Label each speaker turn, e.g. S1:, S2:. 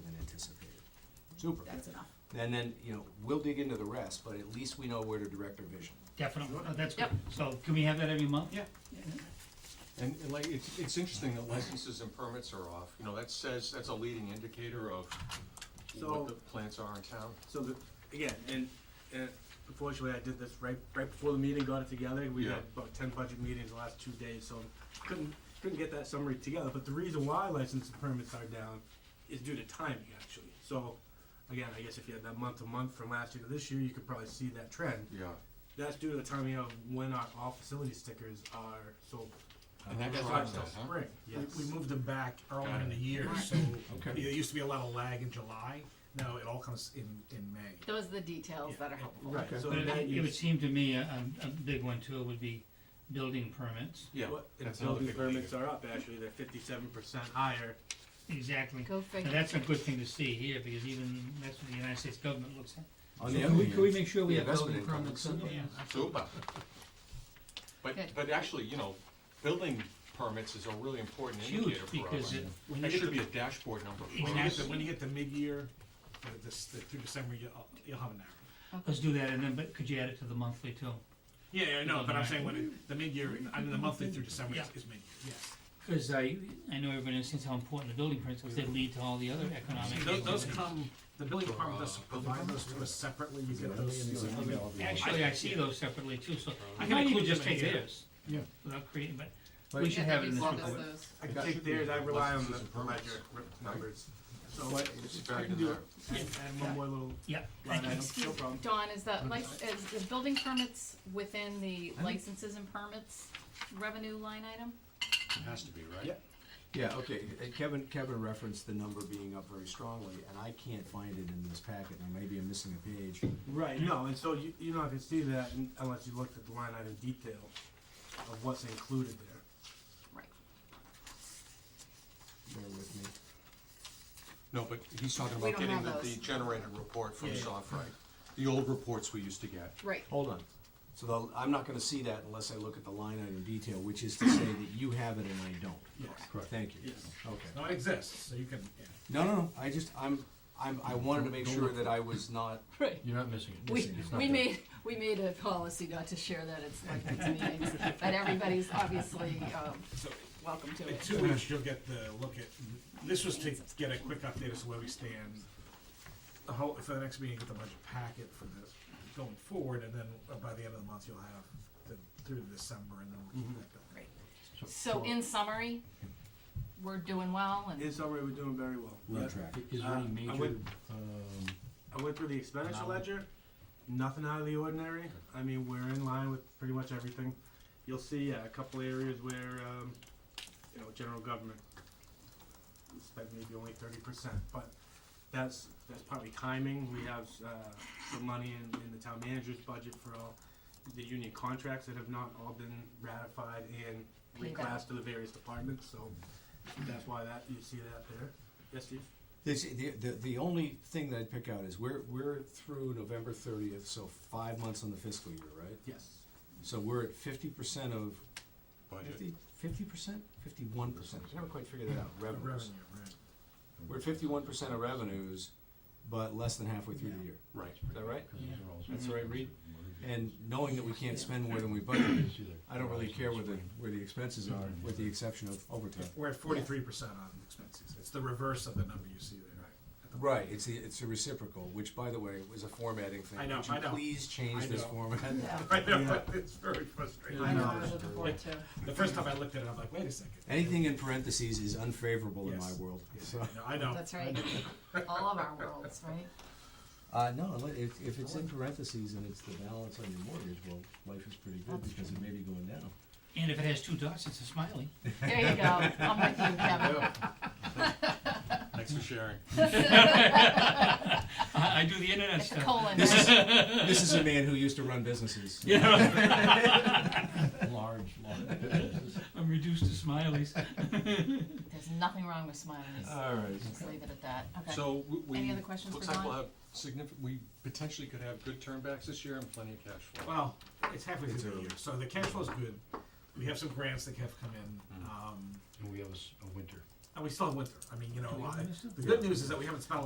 S1: Super.
S2: That's enough.
S1: And then, you know, we'll dig into the rest, but at least we know where to direct our vision.
S3: Definitely, oh, that's good.
S2: Yep.
S3: So can we have that every month?
S4: Yeah. And, and like, it's, it's interesting that licenses and permits are off, you know, that says, that's a leading indicator of
S5: So-
S4: what the plants are in town.
S5: So the, again, and, and unfortunately, I did this right, right before the meeting, got it together, we
S4: Yeah.
S5: had about ten budget meetings the last two days, so couldn't, couldn't get that summary together, but the reason why license and permits are down is due to timing, actually, so, again, I guess if you had that month to month from last year to this year, you could probably see that trend.
S4: Yeah.
S5: That's due to the timing of when our all facility stickers are sold.
S4: And that
S5: That's why
S4: drives
S5: it's
S4: that,
S5: still
S4: huh?
S5: spring, yes.
S6: We, we moved them back earlier in the year, so there used to be a lot of lag in July. Now it all comes in, in May.
S2: Those are the details that are helpful.
S5: Right, so
S3: But it-
S5: that
S3: it
S5: you
S3: would seem to me a, a, a big one too would be building permits.
S4: Yeah.
S5: What- And
S4: that's another
S5: building
S4: big
S5: permits
S4: leader.
S5: are up, actually, they're fifty-seven percent higher.
S3: Exactly.
S2: Go
S3: And
S2: figure.
S3: that's a good thing to see here, because even, that's what the United States government looks at.
S1: On
S3: So
S1: the
S3: can we-
S1: other
S3: Can we
S1: hand,
S3: make sure we
S1: the
S3: have building
S1: investment income
S3: permits?
S1: looks
S3: on-
S1: good.
S3: yeah.
S4: Super. uh, But,
S2: Good.
S4: but actually, you know, building permits is a really important
S3: Huge,
S4: indicator for
S3: because
S4: us.
S3: it,
S6: When you
S4: That
S6: get
S4: should
S6: to,
S4: be a dashboard number
S6: when
S4: for
S6: you get
S4: us.
S6: to, when you get to mid-year, uh, this, the- through December, you'll, you'll have an arrow.
S3: let's do that, and then, but could you add it to the monthly too?
S6: Yeah, yeah, no, but I'm saying when it, the mid-year, I mean, the monthly through December is, is mid-year, yes.
S3: Cause I, I know everybody understands how important the building permits, cause they lead to all the other economic.
S6: Tho- Those,
S3: activities.
S6: come, the building department does provide those to us separately, you get those.
S3: Actually, I see those separately too, so
S6: I
S3: I
S6: can
S3: might even
S6: include
S3: just
S6: them in
S3: take
S6: here.
S3: theirs.
S6: Yeah.
S3: Without creating, but we should have it in this
S2: Give us
S3: report.
S2: those.
S5: I
S4: That
S5: take
S4: should be
S5: theirs, I
S4: the
S5: rely on the
S4: licenses and
S5: the
S4: permits.
S5: ledger r- numbers. So
S4: But It's buried in there.
S5: And and one more little
S3: Yeah,
S5: line item,
S2: Excuse-
S5: no problem.
S2: Dawn, is that like, is the building permits within the licenses and permits revenue line item?
S4: It has to be, right?
S1: Yeah. Yeah, okay, Uh, Kevin, Kevin referenced the number being up very strongly, and I can't find it in this packet, now maybe I'm missing a page.
S5: Right, no, and so you, you're not gonna see that un- unless you looked at the line item detail of what's included there.
S2: Right.
S1: Bear with me.
S4: No, but he's talking
S2: We
S4: about
S2: don't
S4: getting the,
S2: have
S4: the
S2: those.
S4: generated report from
S6: Yeah, yeah.
S4: Softwrite, the old reports we used to get.
S2: Right.
S1: Hold on. So the, I'm not gonna see that unless I look at the line item detail, which is to say that you have it and I don't.
S6: Yes.
S1: Correct. Thank you.
S5: Yes.
S1: Okay.
S6: No, it exists, so you can, yeah.
S1: No, no, no, I just, I'm, I'm, I wanted to make sure that I was not
S2: Right.
S7: You're not missing it.
S2: We, we made, we made a policy not to share that at selectmen's meetings, but everybody's obviously, um, welcome to
S6: In
S2: it.
S6: two weeks, you'll get the look at, this was to get a quick update as to where we stand. The whole, for the next meeting, get the budget packet for this going forward, and then uh, by the end of the month, you'll have the, through December, and then we'll keep that going.
S2: Right. So in summary, we're doing well
S5: In
S2: and,
S5: summary, we're doing very well.
S1: on
S5: Yeah.
S1: track.
S7: Is there
S5: Uh, I
S7: any major,
S5: went-
S7: um,
S5: I went through the expenditure
S7: Now-
S5: ledger, nothing out of the ordinary. I mean, we're in line with pretty much everything. You'll see uh, a couple areas where, um, you know, general government spent maybe only thirty percent, but that's, that's probably timing. We have, uh, some money in, in the town manager's budget for all the union contracts that have not all been ratified and
S2: Paid out.
S5: reclassed to the various departments, so that's why that, you see that there. Yes, Steve?
S1: This, the, the, the only thing that I'd pick out is we're, we're through November thirtieth, so five months on the fiscal year, right?
S5: Yes.
S1: So we're at fifty percent of,
S4: Budget.
S1: fifty, fifty percent, fifty-one percent, I never quite figured that out,
S6: The
S1: revenues.
S6: revenue, right.
S1: We're at fifty-one percent of revenues, but less than halfway through the year,
S4: Right.
S1: is that right?
S7: because those are all-
S1: That's the right read? And knowing that we can't spend more than we budgeted, I don't really care where the, where the expenses are, with the exception of overtime.
S6: We're at forty-three percent on expenses. It's the reverse of the number you see there. At the-
S1: Right, it's the, it's a reciprocal, which by the way, was a formatting thing.
S6: I know,
S1: Would you
S6: I know.
S1: please change
S6: I
S1: this
S6: know.
S1: format?
S2: uh,
S6: I know,
S5: Yeah.
S6: it's very frustrating.
S2: I know, those are the board too.
S6: The first time I looked at it, I'm like, wait a second.
S1: Anything in parentheses is unfavorable in my
S6: Yes.
S1: world. So,
S6: No, I know.
S2: That's right. All of our worlds, right?
S1: uh, no, unle- if, if it's in parentheses and it's the balance on your mortgage, well, life is pretty good because it may be going down.
S3: And if it has two dots, it's a smiley.
S2: There you go. I'm with you, Kevin.
S4: Thanks for sharing.
S3: I, I do the internet
S2: It's a
S3: stuff.
S2: colon.
S1: This
S2: right?
S1: is, this is a man who used to run businesses.
S3: Yeah,
S7: Large, large businesses.
S3: I'm reduced to smileys.
S2: There's nothing wrong with smileys.
S1: All right.
S2: Just leave it at that. Okay.
S4: So we- we.
S2: Any other questions
S4: Looks
S2: for
S4: like we'll
S2: Don?
S4: have significant, we potentially could have good turnbacks this year and plenty of cash flow.
S6: Well, it's halfway through the year, so the cash flow's good. We have some grants that have come in, um,
S7: Mm-hmm. And we have a, s- a winter.
S6: and we still have winter. I mean, you know,
S3: we have
S6: I-
S3: winter still?
S6: the good news is that we haven't spent a